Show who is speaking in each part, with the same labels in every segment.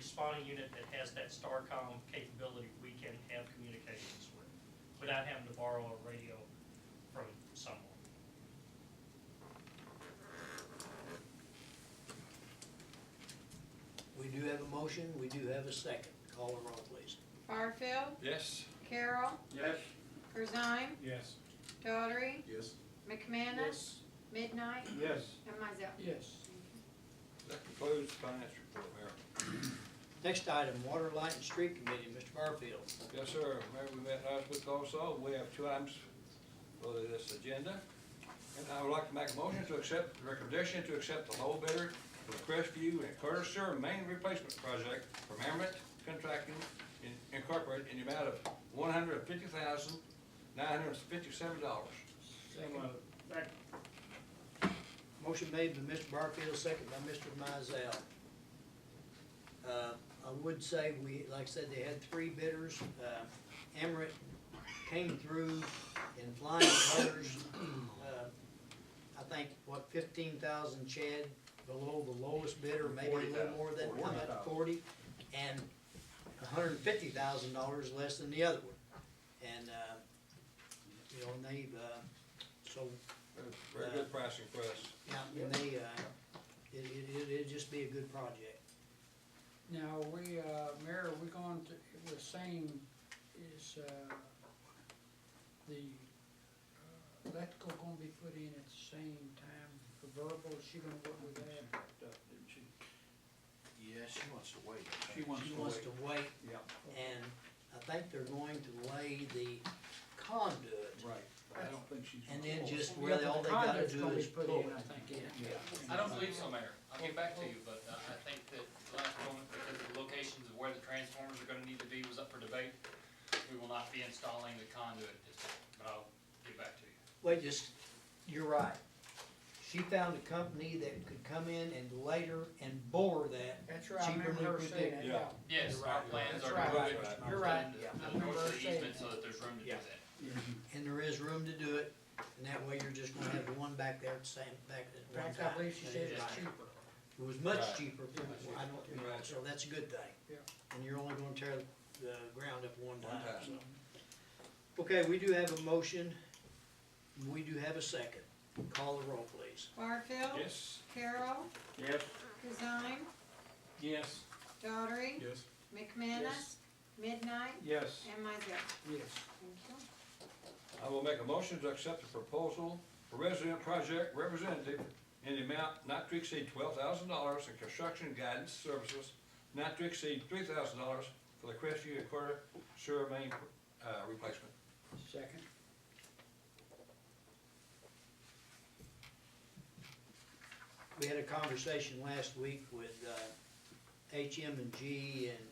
Speaker 1: spawning unit that has that STARCOM capability, we can have communications with, without having to borrow a radio from someone.
Speaker 2: We do have a motion, we do have a second. Call the roll, please.
Speaker 3: Barfield,
Speaker 4: Yes.
Speaker 3: Carol,
Speaker 4: Yes.
Speaker 3: Corzine,
Speaker 4: Yes.
Speaker 3: Daughtry,
Speaker 5: Yes.
Speaker 3: McManus, Midnight,
Speaker 4: Yes.
Speaker 3: and myself.
Speaker 2: Yes.
Speaker 4: That concludes the finance report, Mayor.
Speaker 2: Next item, Water, Light, and Street Committee, Mr. Barfield.
Speaker 4: Yes, sir. Mayor, we met last week also. We have two items for this agenda. And I would like to make a motion to accept, the recommendation to accept the low bidder for the Crestview and Curtis Sewer Main Replacement Project from Amerant Contracting In- Incorporated in the amount of one hundred and fifty thousand, nine hundred and fifty-seven dollars.
Speaker 2: Second. Motion made by Mr. Barfield, second by Mr. Mizell. Uh, I would say we, like I said, they had three bidders. Uh, Emirates came through in flying colors. Uh, I think, what, fifteen thousand Chad below the lowest bidder, maybe a little more than, how about forty? And hundred and fifty thousand dollars less than the other one. And, uh, you know, and they, uh, so
Speaker 4: Very good pricing for us.
Speaker 2: yeah, and they, uh, it, it, it- it'd just be a good project.
Speaker 6: Now, we, uh, Mayor, we going to, the same is, uh, the uh, electrical gonna be put in at the same time, the verbal, is she gonna work with that?
Speaker 5: Yeah, she wants to wait.
Speaker 4: She wants
Speaker 2: She
Speaker 4: to
Speaker 2: wants
Speaker 4: wait.
Speaker 2: to wait,
Speaker 4: Yeah,
Speaker 2: and I think they're going to lay the conduit,
Speaker 4: right. I don't think she's.
Speaker 2: and
Speaker 6: Oh,
Speaker 2: then just really all they gotta do is
Speaker 6: Yeah,
Speaker 2: pull
Speaker 6: but the conduit's gonna
Speaker 2: it.
Speaker 6: be put in, I think, yeah.
Speaker 7: I don't believe so, Mayor. I'll get back to you, but uh, I think that the last moment, because of the locations of where the transformers are gonna need to be was up for debate. We will not be installing the conduit at this point, but I'll get back to you.
Speaker 2: Wait, just, you're right. She found a company that could come in and later and bore that.
Speaker 6: That's right, I
Speaker 2: Cheaper
Speaker 6: remember her
Speaker 2: than
Speaker 6: saying that,
Speaker 4: predicted.
Speaker 6: yeah.
Speaker 7: Yes,
Speaker 2: You're
Speaker 7: our
Speaker 2: right.
Speaker 7: plans
Speaker 6: That's
Speaker 7: are
Speaker 6: right.
Speaker 7: to move it
Speaker 4: Right.
Speaker 6: You're right,
Speaker 7: uh, to
Speaker 6: yeah. I
Speaker 7: the north
Speaker 6: remember
Speaker 7: of
Speaker 6: her
Speaker 7: the
Speaker 6: saying
Speaker 7: easement so
Speaker 6: that.
Speaker 7: that there's room to do
Speaker 6: Yeah.
Speaker 7: that.
Speaker 2: And there is room to do it, and that way you're just gonna have the one back there at the same, back
Speaker 6: In
Speaker 2: at one
Speaker 6: fact,
Speaker 2: time.
Speaker 6: I believe she
Speaker 2: That
Speaker 6: said
Speaker 2: is
Speaker 6: it's
Speaker 2: right.
Speaker 6: cheaper.
Speaker 2: It was
Speaker 4: Right.
Speaker 2: much cheaper, than what I don't, you know,
Speaker 4: Right.
Speaker 2: so that's a good thing.
Speaker 6: Yeah.
Speaker 2: And you're only gonna tear the ground up one
Speaker 4: One
Speaker 2: time,
Speaker 4: time.
Speaker 2: so. Okay, we do have a motion, we do have a second. Call the roll, please.
Speaker 3: Barfield.
Speaker 4: Yes.
Speaker 3: Carol,
Speaker 4: Yes.
Speaker 3: Corzine,
Speaker 4: Yes.
Speaker 3: Daughtry,
Speaker 5: Yes.
Speaker 3: McManus, Midnight,
Speaker 4: Yes.
Speaker 3: and myself.
Speaker 6: Yes.
Speaker 3: Thank you.
Speaker 4: I will make a motion to accept the proposal for resident project representative in the amount not to exceed twelve thousand dollars and construction guidance services not to exceed three thousand dollars for the Crestview and Quarter sewer main, uh, replacement.
Speaker 6: Second,
Speaker 2: We had a conversation last week with, uh, HM and G and,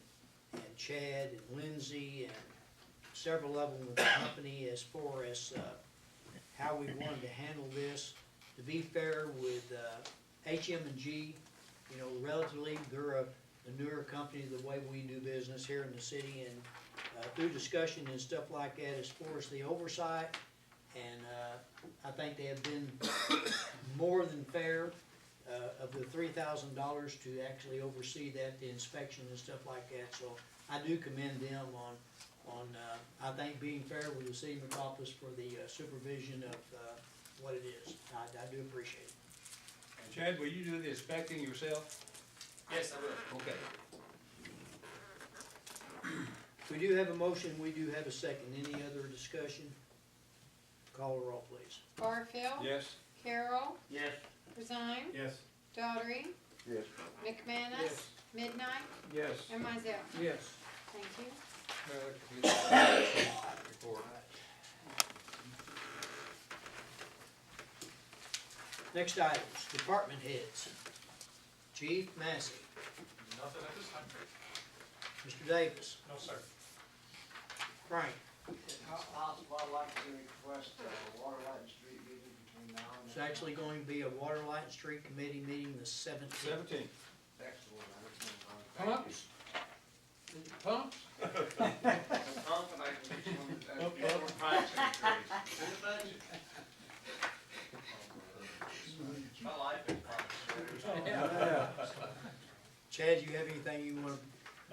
Speaker 2: and Chad and Lindsay and several of them with the company as far as, uh, how we wanted to handle this. To be fair with, uh, HM and G, you know, relatively, they're a, a newer company, the way we do business here in the city and, uh, through discussion and stuff like that, as far as the oversight, and, uh, I think they have been more than fair uh, of the three thousand dollars to actually oversee that, the inspection and stuff like that, so I do commend them on, on, uh, I think being fair with the city of McCompus for the uh, supervision of, uh, what it is, I, I do appreciate it.
Speaker 4: Chad, will you do the inspecting yourself?
Speaker 7: Yes, I will.
Speaker 4: Okay.
Speaker 2: We do have a motion, we do have a second, any other discussion? Call the roll, please.
Speaker 3: Barfield.
Speaker 4: Yes.
Speaker 3: Carol,
Speaker 5: Yes.
Speaker 3: Corzine,
Speaker 5: Yes.
Speaker 3: Daughtry,
Speaker 5: Yes.
Speaker 3: McManus,
Speaker 6: Yes.
Speaker 3: Midnight,
Speaker 4: Yes.
Speaker 3: and myself.
Speaker 6: yes.
Speaker 3: Thank you.
Speaker 4: Uh, Report.
Speaker 2: Next items, department heads. Chief Massey,
Speaker 7: Nothing at this time.
Speaker 2: Mr. Davis,
Speaker 1: No, sir.
Speaker 2: Frank,
Speaker 8: Possible, I'd like to request a uh, water, light, and street meeting between now and then.
Speaker 2: it's actually going to be a water, light, and street committee meeting the seventeenth.
Speaker 4: Seventeen.
Speaker 8: Excellent, I understand.
Speaker 6: How much?